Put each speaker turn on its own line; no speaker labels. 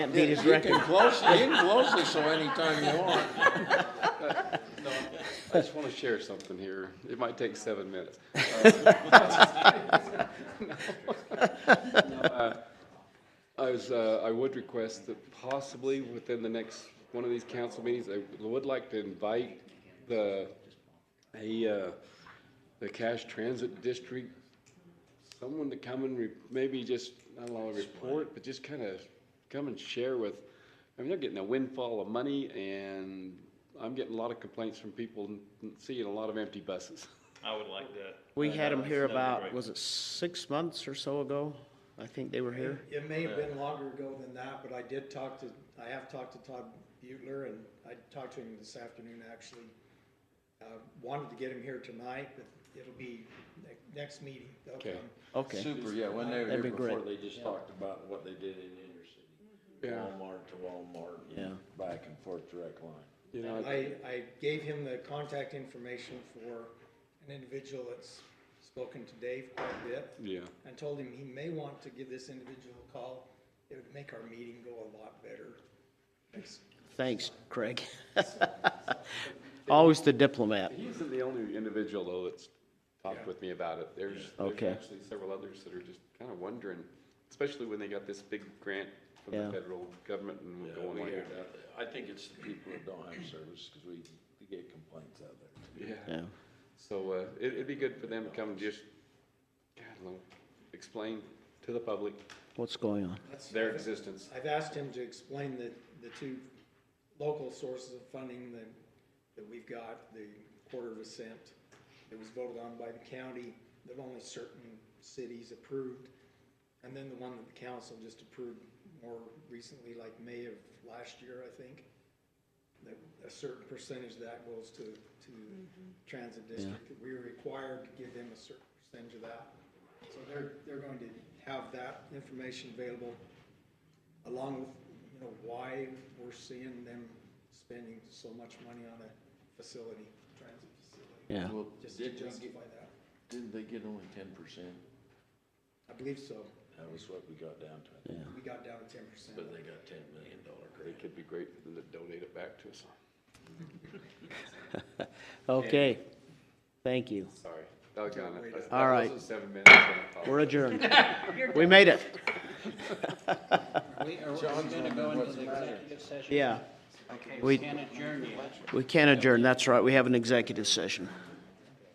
Can't
You
beat his record.
can close, you can close this so anytime you want.
I just want to share something here. It might take seven minutes. Uh, I was, uh, I would request that possibly within the next, one of these council meetings, I would like to invite the, a, uh, the cash transit district, someone to come and re, maybe just, I don't know, report, but just kind of come and share with, I mean, they're getting a windfall of money and I'm getting a lot of complaints from people and seeing a lot of empty buses.
I would like that.
We
Uh,
had them here
that'd be
about,
great.
was it six months or so ago? I think they were here.
It may have been longer ago than that, but I did talk to, I have talked to Todd Butler and I talked to him this afternoon, actually. Uh, wanted to get him here tonight, but it'll be ne- next meeting. They'll
Okay.
come.
Okay,
Super, yeah, when they were
That'd
here
be
before, they
great.
just talked about what they did in inner city.
Yeah.
Walmart to Walmart.
Yeah.
and Back and forth direct line.
You know,
I, I gave him the contact information for an individual that's spoken to Dave quite a bit.
yeah,
And told him he may want to give this individual a call. It would make our meeting go a lot better. Thanks.
thanks, Craig. Always the diplomat.
he isn't the only individual though that's talked with me about it. There's, there's
Okay.
actually several others that are just kind of wondering, especially when they got this big grant from
Yeah.
the federal government and we're going here.
I think it's the people that don't have service, cause we, we get complaints out there.
Yeah,
Yeah,
so, uh, it, it'd be good for them to come and just, God, I don't know, explain to the public
what's going on?
That's-
their existence.
I've asked him to explain the, the two local sources of funding that, that we've got, the quarter of a cent that was voted on by the county, that only certain cities approved, and then the one that the council just approved more recently, like May of last year, I think. That a certain percentage of that goes to, to transit district, that we are required to give them a certain percentage of that. So they're, they're going to have that information available along with, you know, why we're seeing them spending so much money on a facility, transit facility,
Yeah,
Well,
just to
did they
justify
get,
that.
didn't they get only ten percent?
I believe so.
That was what we got down to,
yeah,
We got down to ten percent.
but they got ten million dollar
It
grant.
could be great for them to donate it back to us.
okay. Thank you.
Sorry, doggone it. That- that
All right.
wasn't Seven minutes. I apologize.
We're adjourned. We made it.
John's gonna go into the
Yeah. We, we can adjourn, that's right, we have an executive session.